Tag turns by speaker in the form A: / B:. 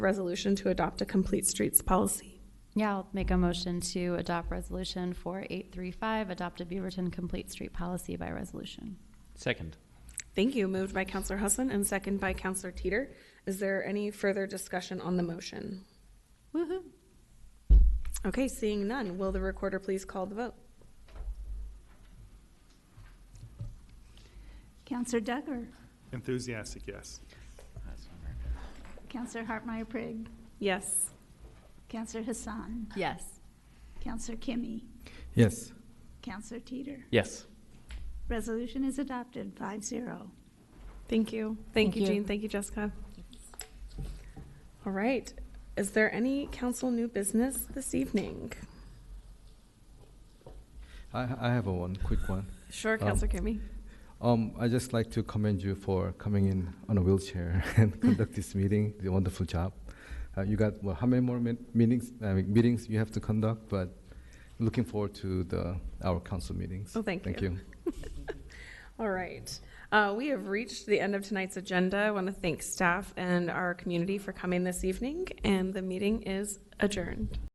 A: resolution to adopt a complete streets policy.
B: Yeah, I'll make a motion to adopt resolution 4835, adopt a Beaverton Complete Street Policy by resolution.
C: Second.
A: Thank you. Moved by Counselor Hussin and second by Counselor Teeter. Is there any further discussion on the motion?
B: Woohoo!
A: Okay, seeing none, will the recorder please call the vote?
D: Counselor Duggar,
E: Enthusiastic, yes.
D: Counselor Hartmeyer Prigg,
A: Yes.
D: Counselor Hassan,
B: Yes.
D: Counselor Kimmy,
F: yes,
D: Counselor Teeter.
C: Yes.
D: Resolution is adopted, five zero.
A: Thank you. Thank you, Jean. Thank you, Jessica. All right. Is there any council new business this evening?
F: I, I have a one, quick one.
A: Sure,
F: Um,
A: Counselor Kimmy.
F: Um, I just like to commend you for coming in on a wheelchair and conduct this meeting. You did a wonderful job. Uh, you got well, how many more min- meetings? I mean, meetings you have to conduct, but looking forward to the our council meetings.
A: Oh, thank
F: Thank
A: you.
F: you.
A: All right. Uh, we have reached the end of tonight's agenda. I want to thank staff and our community for coming this evening, and the meeting is adjourned.